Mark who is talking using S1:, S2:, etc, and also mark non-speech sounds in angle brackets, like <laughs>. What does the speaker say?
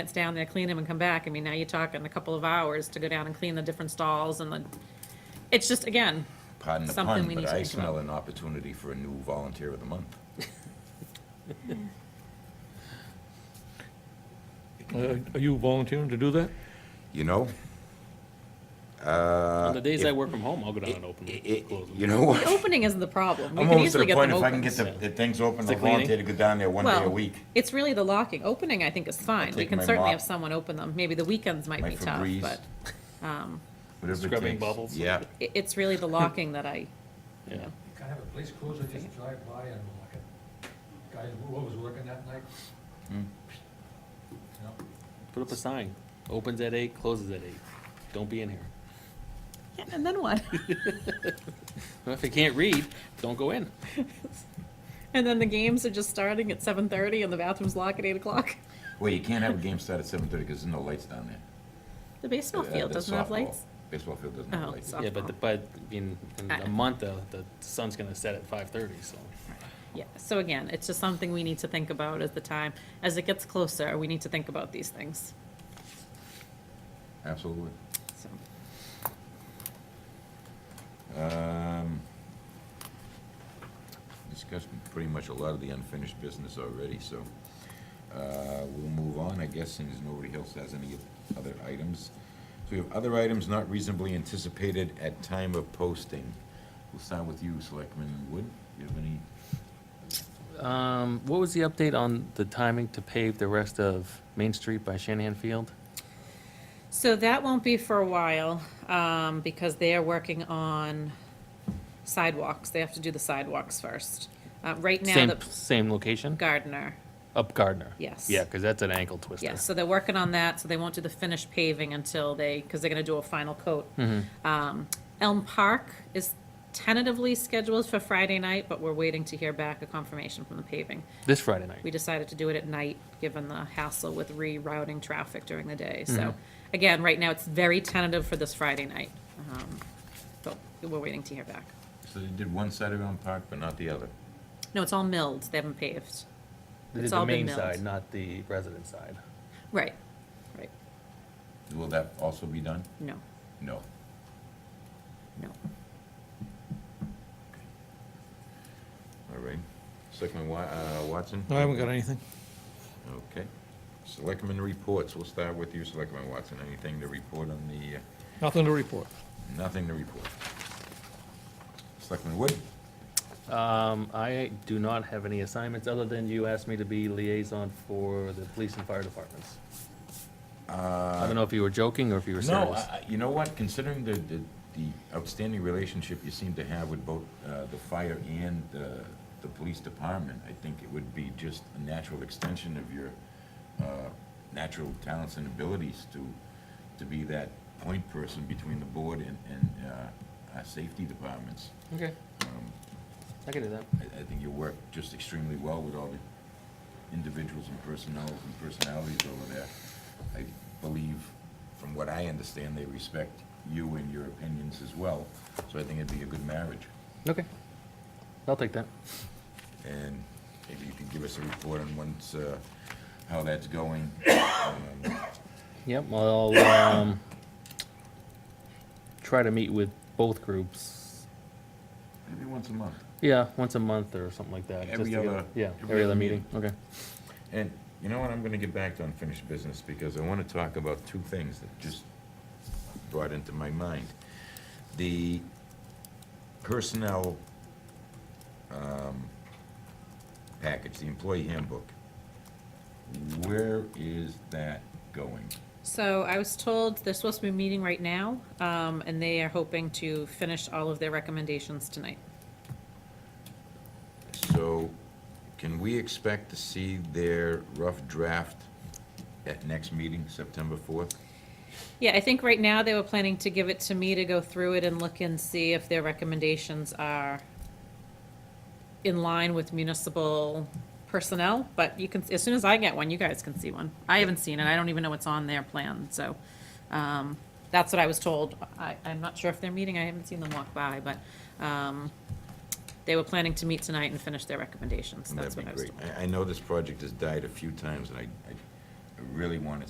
S1: It's down there, clean them and come back. I mean, now you're talking a couple of hours to go down and clean the different stalls and the, it's just, again,
S2: Pardon the
S1: Something we
S2: pun,
S1: need
S2: but
S1: to
S2: I
S1: think
S2: smell an opportunity for a new volunteer of the month.
S3: Uh, Are you volunteering to do that?
S2: You know?
S4: On the days I
S2: if-
S4: work from home, I'll go down and open
S2: It-
S4: them,
S2: it-
S4: close them.
S2: You know what?
S1: opening isn't the problem. We
S2: I'm
S1: could
S2: almost to
S1: easily
S2: the
S1: get
S2: point,
S1: them
S2: if I can
S1: open.
S2: get the, the things open,
S4: The
S2: I'll volunteer to
S4: cleaning?
S2: go down there one day a
S1: Well,
S2: week.
S1: it's really the locking. Opening, I think, is fine. We
S2: take
S1: can
S2: my
S1: certainly
S2: mop.
S1: have someone open them. Maybe the weekends might
S2: My
S1: be tough,
S2: Febreze.
S1: but um,
S2: whatever it
S4: Scrubbing
S2: takes.
S4: bubbles.
S2: Yeah,
S1: it, it's really the locking that I,
S4: Yeah.
S5: You Kind of a police cruiser, just drive by and like a guy, who was working that night.
S2: Hmm.
S5: You know,
S4: Put up a sign, opens at eight, closes at eight. Don't be in here.
S1: yeah, and then what?
S4: Well, If you can't read, don't go in.
S1: <laughs> And then the games are just starting at seven thirty and the bathrooms lock at eight o'clock.
S2: well, you can't have a game start at seven thirty, because there's no lights down there.
S1: The baseball
S2: Uh,
S1: field
S2: the
S1: doesn't have
S2: softball-
S1: lights.
S2: Baseball field doesn't have
S1: Oh,
S2: lights.
S1: so-
S4: Yeah, but, the- but in, in
S1: I-
S4: a month, uh, the sun's gonna set at five thirty, so.
S1: Yeah, so again, it's just something we need to think about as the time, as it gets closer, we need to think about these things,
S2: Absolutely.
S1: so.
S2: Um, Discussed pretty much a lot of the unfinished business already, so uh, we'll move on, I guess, since nobody else has any other items. So we have other items not reasonably anticipated at time of posting. We'll start with you, Selectman Wood. Do you have any?
S4: Um, what was the update on the timing to pave the rest of Main Street by Shanahan Field?
S1: So that won't be for a while, um, because they are working on sidewalks, they have to do the sidewalks first. Uh, right now,
S4: Same,
S1: the
S4: same location?
S1: gardener,
S4: Up Gardner?
S1: Yes.
S4: Yeah, cause that's an ankle twister.
S1: yeah, so they're working on that, so they won't do the finished paving until they, because they're gonna do a final coat. Um, Elm Park is tentatively scheduled for Friday night, but we're waiting to hear back a confirmation from the paving.
S4: This Friday night.
S1: we decided to do it at night, given the hassle with rerouting traffic during the day. So,
S4: Mm-hmm.
S1: again, right now, it's very tentative for this Friday night. Um, But we're waiting to hear back.
S2: So they did one side around the park, but not the other.
S1: No, it's all milled, they haven't paved.
S4: They
S1: It's
S4: did
S1: all
S4: the
S1: been
S4: main
S1: milled.
S4: side, not the resident side.
S1: Right, right,
S2: Will that also be done?
S1: no,
S2: No.
S1: no.
S2: All right. Selectman Wa- uh, Watson?
S3: I haven't got anything.
S2: Okay. Selectman reports. We'll start with you, Selectman Watson. Anything to report on the, uh,
S3: Nothing to report.
S2: nothing to report? Selectman Wood?
S4: Um, I do not have any assignments, other than you asked me to be liaison for the police and fire departments.
S2: Uh,
S4: I don't know if you were joking or if you were
S2: No,
S4: serious.
S2: I- I- you know what, considering the, the the outstanding relationship you seem to have with both uh, the fire and the, the police department, I think it would be just a natural extension of your uh, natural talents and abilities to, to be that point person between the board and, and uh, our safety departments.
S4: Okay,
S2: Um,
S4: I can do that.
S2: I, I think you work just extremely well with all the individuals and personnel and personalities over there. I believe, from what I understand, they respect you and your opinions as well, so I think it'd be a good marriage.
S4: Okay, I'll take that.
S2: And maybe you can give us a report on once, uh, how that's going. Um,
S4: Yep, well, um, try to meet with both groups,
S2: Maybe once a month.
S4: yeah, once a month or something like that. just
S2: Every
S4: to get-
S2: other-
S4: Yeah,
S2: every
S4: every
S2: other
S4: other meeting, okay.
S2: And you know what, I'm gonna get back to unfinished business, because I wanna talk about two things that just brought into my mind. The personnel, um, package, the employee handbook, where is that going?
S1: So I was told they're supposed to be meeting right now, um, and they are hoping to finish all of their recommendations tonight.
S2: So, can we expect to see their rough draft at next meeting, September fourth?
S1: Yeah, I think right now they were planning to give it to me to go through it and look and see if their recommendations are in line with municipal personnel, but you can, as soon as I get one, you guys can see one. I haven't seen it, I don't even know what's on their plan, so, um, that's what I was told. I, I'm not sure if they're meeting, I haven't seen them walk by, but, um, they were planning to meet tonight and finish their recommendations, that's
S2: That'd
S1: what
S2: be
S1: I was
S2: great.
S1: told.
S2: I, I know this project has died a few times, and I, I I really want to